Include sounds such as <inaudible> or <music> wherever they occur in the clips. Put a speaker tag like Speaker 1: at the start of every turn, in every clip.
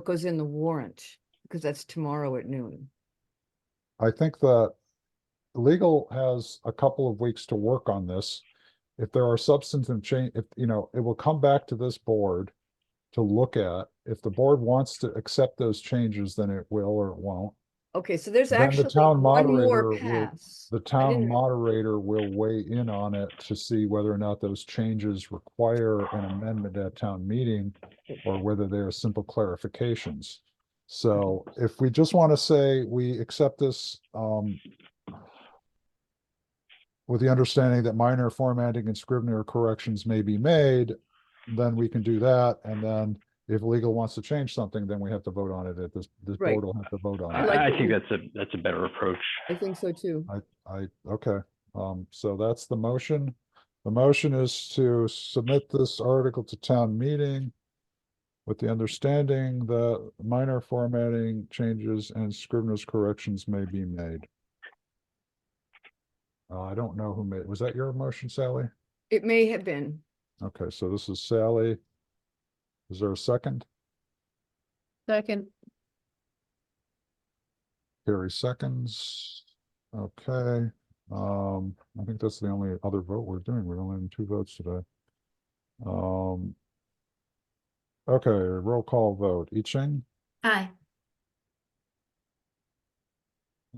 Speaker 1: what goes in the warrant, because that's tomorrow at noon.
Speaker 2: I think that legal has a couple of weeks to work on this. If there are substantive change, if, you know, it will come back to this board to look at. If the board wants to accept those changes, then it will or it won't.
Speaker 1: Okay, so there's
Speaker 2: Then the
Speaker 1: actually
Speaker 2: town
Speaker 1: one
Speaker 2: moderator
Speaker 1: more
Speaker 2: will-
Speaker 1: pass.
Speaker 2: The town
Speaker 1: didn't-
Speaker 2: moderator will weigh in on it to see whether or not those changes require an amendment at town meeting or whether they are simple clarifications. So if we just want to say we accept this, um, with the understanding that minor formatting and scrivener corrections may be made, then we can do that. And then if legal wants to change something, then we have to vote on it at this, this
Speaker 1: Right.
Speaker 2: board will have to vote on it.
Speaker 1: I like
Speaker 3: I, I
Speaker 1: the-
Speaker 3: think that's a, that's a better approach.
Speaker 1: I think so too.
Speaker 2: I, I, okay, um, so that's the motion. The motion is to submit this article to town meeting with the understanding that minor formatting changes and scrivener's corrections may be made. Uh, I don't know who made, was that your motion, Sally?
Speaker 1: It may have been.
Speaker 2: Okay, so this is Sally. Is there a second?
Speaker 4: Second,
Speaker 2: Carrie seconds. Okay, um, I think that's the only other vote we're doing. We're only in two votes today. Um. Okay, roll call vote. I Ching,
Speaker 5: Aye.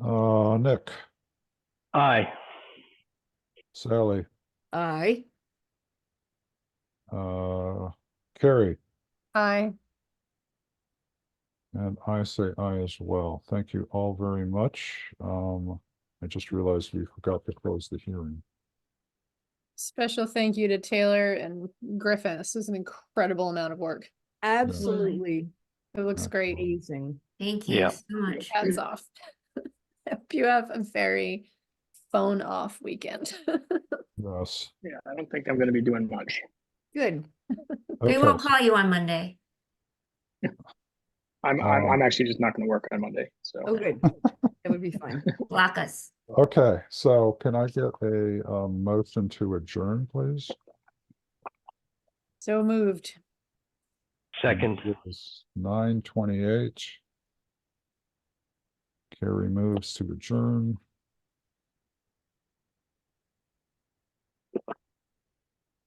Speaker 2: uh, Nick,
Speaker 3: Aye,
Speaker 2: Sally,
Speaker 1: I,
Speaker 2: uh, Carrie,
Speaker 4: aye.
Speaker 2: and I say aye as well. Thank you all very much. Um, I just realized we forgot to close the hearing.
Speaker 4: Special thank you to Taylor and Griffin. This is an incredible amount of work.
Speaker 1: absolutely
Speaker 4: It looks great.
Speaker 1: amazing.
Speaker 5: Thank you
Speaker 3: Yeah.
Speaker 5: so much.
Speaker 4: Hats off. <laughs> Hope you have a very phone off weekend. <laughs>
Speaker 2: Yes.
Speaker 6: Yeah, I don't think I'm gonna be doing much.
Speaker 1: Good.
Speaker 5: We
Speaker 2: Okay,
Speaker 5: won't call you on Monday.
Speaker 6: I'm, I'm,
Speaker 2: Um,
Speaker 6: I'm actually just not gonna work on Monday, so.
Speaker 1: Oh,
Speaker 2: <laughs>
Speaker 1: good. That would be fine.
Speaker 5: Block us.
Speaker 2: Okay, so can I get a, um, motion to adjourn, please?
Speaker 4: So moved.
Speaker 3: second,
Speaker 2: Nine twenty-eight. Carrie moves to adjourn.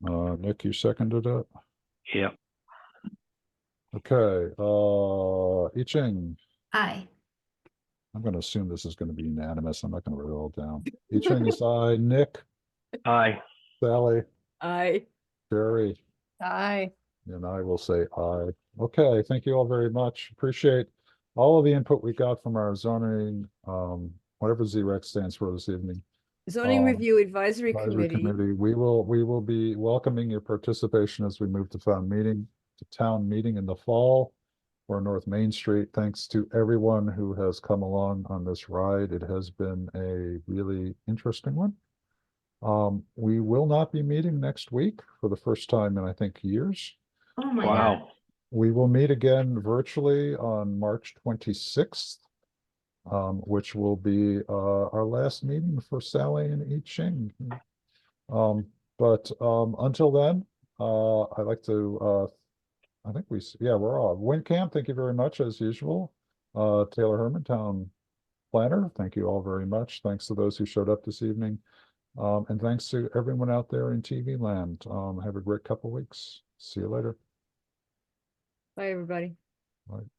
Speaker 2: Uh, Nick, you seconded it?
Speaker 3: yeah.
Speaker 2: Okay, uh, I Ching,
Speaker 5: Aye.
Speaker 2: I'm gonna assume this is gonna be unanimous. I'm not gonna write it all down. I Ching is I, Nick,
Speaker 3: Aye,
Speaker 2: Sally,
Speaker 1: I.
Speaker 2: Carrie.
Speaker 4: Aye.
Speaker 2: And I will say aye. Okay, thank you all very much. Appreciate all of the input we got from our zoning, um, whatever ZREC stands for this evening.
Speaker 1: Zoning
Speaker 2: Um,
Speaker 1: Review Advisory
Speaker 2: Advisory
Speaker 1: Committee.
Speaker 2: committee, we will, we will be welcoming your participation as we move to town meeting, to town meeting in the fall for North Main Street. Thanks to everyone who has come along on this ride. It has been a really interesting one. Um, we will not be meeting next week for the first time in, I think, years.
Speaker 5: Oh my God.
Speaker 3: wow,
Speaker 2: We will meet again virtually on March twenty-sixth, um, which will be, uh, our last meeting for Sally and I Ching. Um, but, um, until then, uh, I'd like to, uh, I think we, s- yeah, we're all, Camp. thank you very much as usual. Uh, Taylor Herman, Town Planner, thank you all very much. Thanks to those who showed up this evening. Um, and thanks to everyone out there in TV land. Um, have a great couple weeks. See you later.
Speaker 1: Bye, everybody.
Speaker 2: Bye.